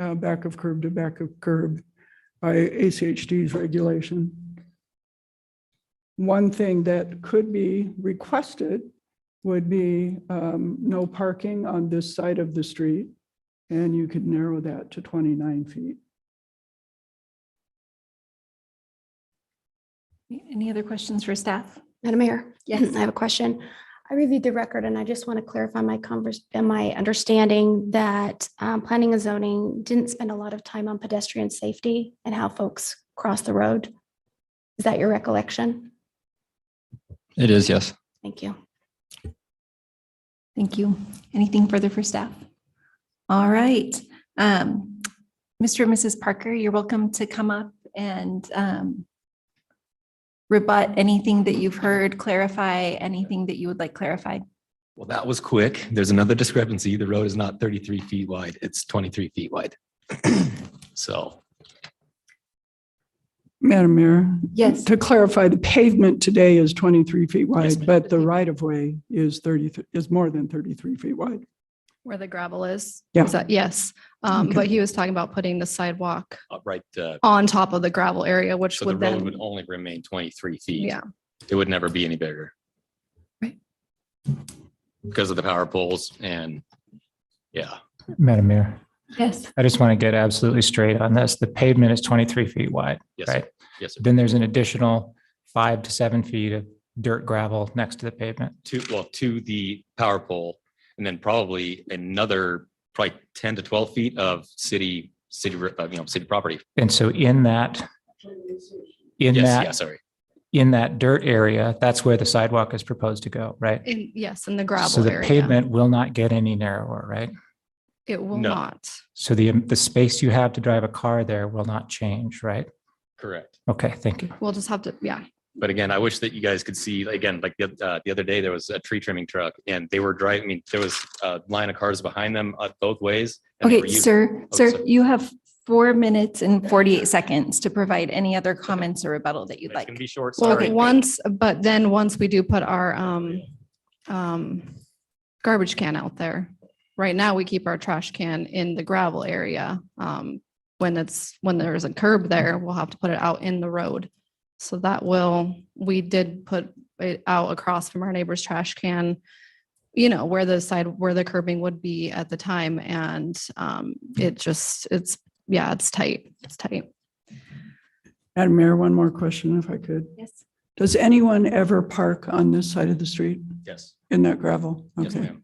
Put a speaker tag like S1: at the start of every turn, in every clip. S1: uh, back of curb to back of curb by ACHD's regulation. One thing that could be requested would be um, no parking on this side of the street. And you could narrow that to 29 feet.
S2: Any other questions for staff?
S3: Madam Mayor?
S2: Yes.
S3: I have a question. I reviewed the record and I just want to clarify my converse, and my understanding that um, planning and zoning didn't spend a lot of time on pedestrian safety and how folks cross the road. Is that your recollection?
S4: It is, yes.
S3: Thank you.
S2: Thank you. Anything further for staff? All right. Um, Mr. and Mrs. Parker, you're welcome to come up and um, rebut anything that you've heard, clarify anything that you would like clarified.
S4: Well, that was quick. There's another discrepancy. The road is not 33 feet wide. It's 23 feet wide. So
S1: Madam Mayor?
S2: Yes.
S1: To clarify, the pavement today is 23 feet
S4: Yes,
S1: wide,
S4: ma'am.
S1: but the right of way is 30, th- is more than 33 feet wide.
S5: Where the gravel is?
S1: Yeah.
S5: Is that- Yes, um,
S1: Okay.
S5: but he was talking about putting the sidewalk
S4: uh, right, uh,
S5: on top of the gravel area, which
S4: so the
S5: would
S4: road would
S5: then,
S4: only remain 23 feet.
S5: yeah,
S4: It would never be any bigger.
S5: Right.
S4: Because of the power poles and, yeah,
S6: Madam Mayor,
S2: Yes.
S6: I just want to get absolutely straight on this. The pavement is 23 feet wide,
S4: yes,
S6: right?
S4: sir. yes. sir.
S6: Then there's an additional five to seven feet of dirt gravel next to the pavement.
S4: to, well, to the power pole and then probably another, probably 10 to 12 feet of city, city, uh, you know, city property.
S6: And so in that, in
S4: Yes, yeah,
S6: that,
S4: sorry.
S6: in that dirt area, that's where the sidewalk is proposed to go, right?
S5: in, yes, in the
S6: So
S5: gravel
S6: the
S5: area.
S6: pavement will not get any narrower, right?
S5: It will
S4: No.
S5: not.
S6: So the, the space you have to drive a car there will not change, right?
S4: Correct.
S6: Okay, thank you.
S5: We'll just have to, yeah,
S4: But again, I wish that you guys could see, again, like the, uh, the other day, there was a tree trimming truck and they were driving, I mean, there was a line of cars behind them uh, both ways. and they were
S2: Okay,
S4: using-
S2: sir,
S4: Oh,
S2: sir,
S4: sorry.
S2: you have four minutes and 48 seconds to provide any other comments or rebuttal that you'd
S4: It's
S2: like.
S4: gonna be short,
S5: well,
S4: sorry.
S5: once, but then once we do put our, um, um, garbage can out there. Right now, we keep our trash can in the gravel area. Um, when it's, when there's a curb there, we'll have to put it out in the road. So that will, we did put it out across from our neighbor's trash can, you know, where the side, where the curbing would be at the time. And, um, it just, it's, yeah, it's tight. It's tight.
S1: Madam Mayor, one more question if I could.
S2: Yes.
S1: Does anyone ever park on this side of the street
S4: Yes,
S1: in that gravel?
S4: yes,
S1: Okay,
S4: ma'am.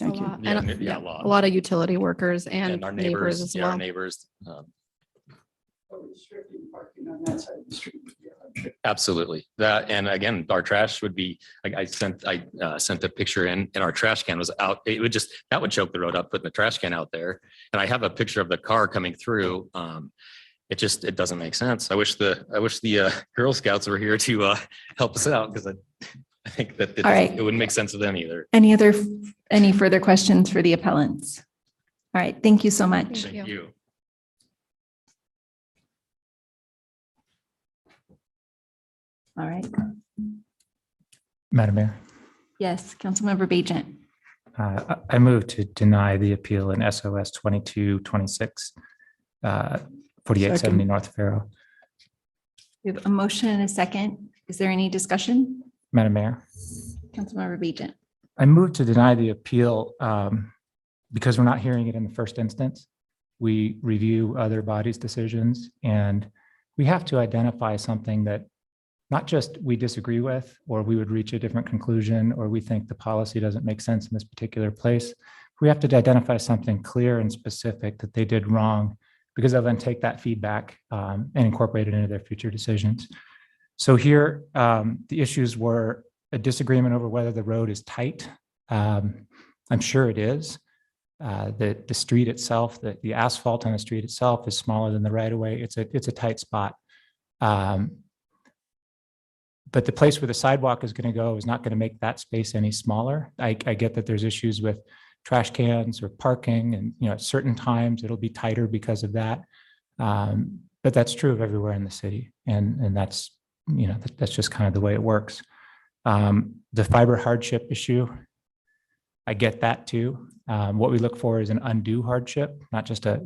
S5: A
S1: thank you.
S5: lot-
S4: Yeah,
S5: and,
S4: n- yeah, a
S5: yeah,
S4: lot.
S5: A lot of utility workers and
S4: And our
S5: neighbors
S4: neighbors,
S5: as
S4: yeah, our
S5: well.
S4: neighbors, um,
S1: Restricting parking on that side of the street.
S4: absolutely. That, and again, our trash would be, I, I sent, I, uh, sent a picture in, and our trash can was out. It would just, that would choke the road up, putting the trash can out there. And I have a picture of the car coming through. Um, it just, it doesn't make sense. I wish the, I wish the, uh, Girl Scouts were here to, uh, help us out because I, I think that it
S2: All
S4: doesn't-
S2: right.
S4: it wouldn't make sense to them either.
S2: Any other, any further questions for the appellants? All right, thank you so much.
S5: you.
S4: Thank you.
S2: All right.
S6: Madam Mayor,
S2: Yes, Councilmember Bajent.
S6: uh, I I move to deny the appeal in SOS 2226, uh, 4870
S1: Second.
S6: North Pharaoh.
S2: We have a motion and a second. Is there any discussion?
S6: Madam Mayor,
S2: Councilmember Bajent.
S6: I move to deny the appeal um, because we're not hearing it in the first instance. We review other bodies' decisions, and we have to identify something that not just we disagree with, or we would reach a different conclusion, or we think the policy doesn't make sense in this particular place. We have to identify something clear and specific that they did wrong, because they'll then take that feedback um, and incorporate it into their future decisions. So here, um, the issues were a disagreement over whether the road is tight. Um, I'm sure it is. Uh, the, the street itself, the, the asphalt on the street itself is smaller than the right of way. It's a, it's a tight spot. Um, but the place where the sidewalk is going to go is not going to make that space any smaller. I, I get that there's issues with trash cans or parking and, you know, at certain times it'll be tighter because of that. Um, but that's true of everywhere in the city. And, and that's, you know, that- that's just kind of the way it works. Um, the fiber hardship issue, I get that too. Um, what we look for is an undue hardship, not just a,